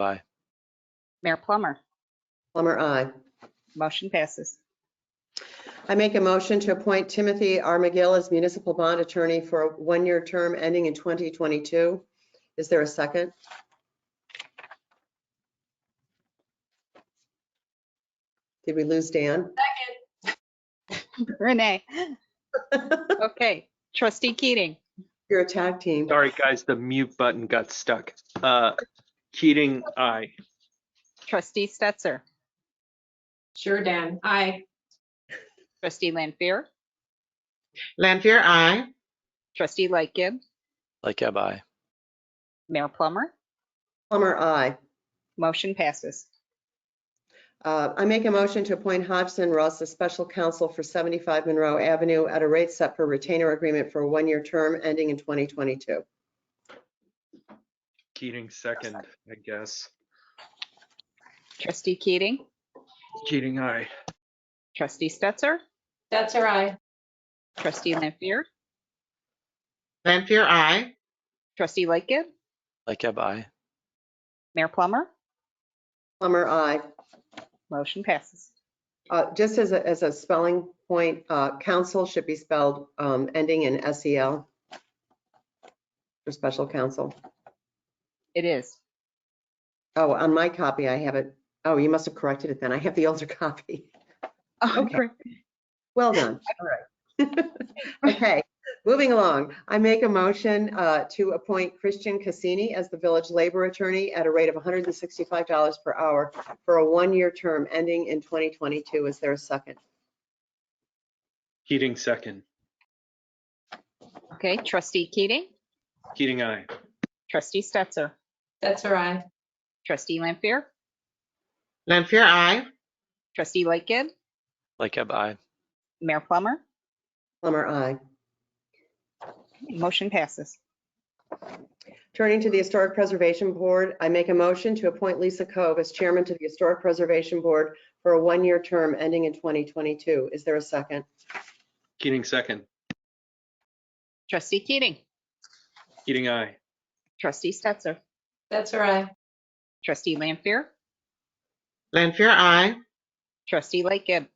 Bye. Mayor Plummer, Plummer, I. motion passes. I make a motion to appoint Timothy R. McGill as municipal bond attorney for a one-year term ending in 2022. Is there a second? Did we lose Dan? Renee, okay. Trustee Keating, Your attack team. Sorry, guys, the mute button got stuck. Uh, Keating, aye. trustee Stetser, Sure, Dan. Aye. trustee Lanfair, Lanfear, aye. trustee Lightgib, Like I aye. Mayor Plummer, Plummer, I. motion passes. Uh, I make a motion to appoint Hodgson Russ as special counsel for 75 Monroe Avenue at a rate set per retainer agreement for a one-year term ending in 2022. Keating second, I guess. Trustee Keating, Keating, aye. trustee Stetser, That's her aye. trustee Lanfair, Lanfear, aye. trustee Lightgib, Like I aye. Mayor Plummer, Plummer, I. motion passes. Uh, Just as a, as a spelling point, uh, council should be spelled um, ending in S-E-L for special counsel. It is. Oh, on my copy, I have it. Oh, you must have corrected it then. I have the older copy. Okay. Well done. All right. Okay, moving along. I make a motion uh, to appoint Christian Cassini as the village labor attorney at a rate of $165 per hour for a one-year term ending in 2022. Is there a second? Keating second. Okay, trustee Keating, Keating, aye. trustee Stetser, That's her aye. trustee Lanfair, Lanfear, aye. trustee Lightgib, Like I aye. Mayor Plummer, Plummer, I. motion passes. Turning to the Historic Preservation Board, I make a motion to appoint Lisa Cove as chairman to the Historic Preservation Board for a one-year term ending in 2022. Is there a second? Keating second. Trustee Keating, Keating, aye. trustee Stetser, That's her aye. trustee Lanfair, Lanfear, aye. trustee Lightgib,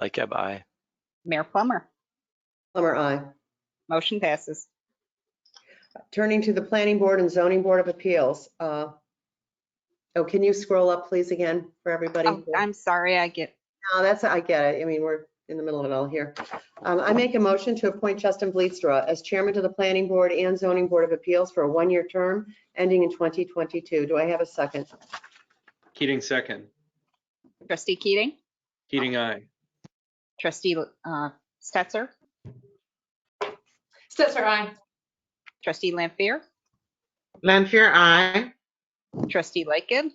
Like I aye. Mayor Plummer, Plummer, I. motion passes. Turning to the Planning Board and Zoning Board of Appeals. uh, Oh, can you scroll up, please, again, for everybody? Oh, I'm sorry, I get, No, that's, I get it. I mean, we're in the middle of it all here. Um, I make a motion to appoint Justin Bleedstra as chairman to the Planning Board and Zoning Board of Appeals for a one-year term ending in 2022. Do I have a second? Keating second. trustee Keating, Keating, aye. trustee uh, Stetser, That's her aye. trustee Lampier, Lanfear, aye. trustee Lightgib,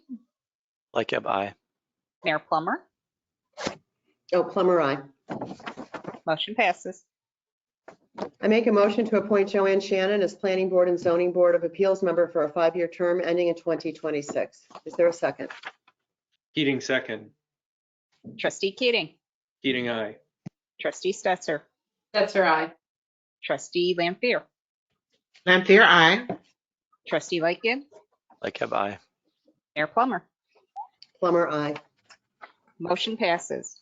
Like I aye. Mayor Plummer, Oh, Plummer, I. motion passes. I make a motion to appoint Joanne Shannon as Planning Board and Zoning Board of Appeals member for a five-year term ending in 2026. Is there a second? Keating second. Trustee Keating, Keating, aye. trustee Stetser, That's her aye. trustee Lampier, Lanfear, aye. trustee Lightgib, Like I aye. Mayor Plummer, Plummer, I. motion passes.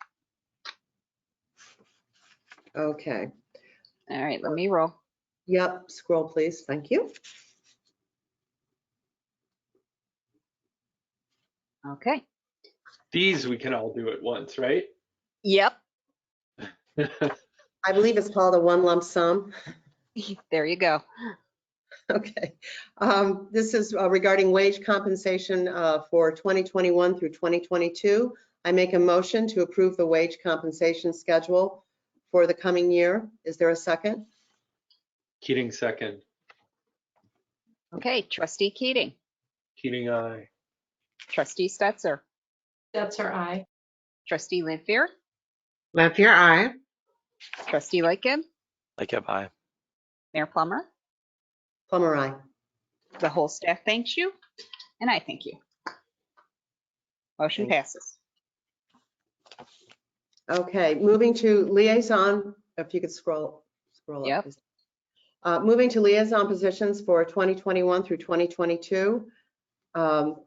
Okay. All right, let me roll. Yep, scroll, please. Thank you. Okay. These we can all do at once, right? Yep, I believe it's called a one lump sum. there you go. Okay. Um, This is uh, regarding wage compensation uh, for 2021 through 2022. I make a motion to approve the wage compensation schedule for the coming year. Is there a second? Keating second. Okay, trustee Keating, Keating, aye. trustee Stetser, That's her aye. trustee Lampier, Lanfear, aye. trustee Lightgib, Like I aye. Mayor Plummer, Plummer, I. the whole staff thanks you, and I thank you. Motion passes. Okay, moving to liaison, if you could scroll, scroll Yep. up. please. Uh, Moving to liaison positions for 2021 through 2022. Um,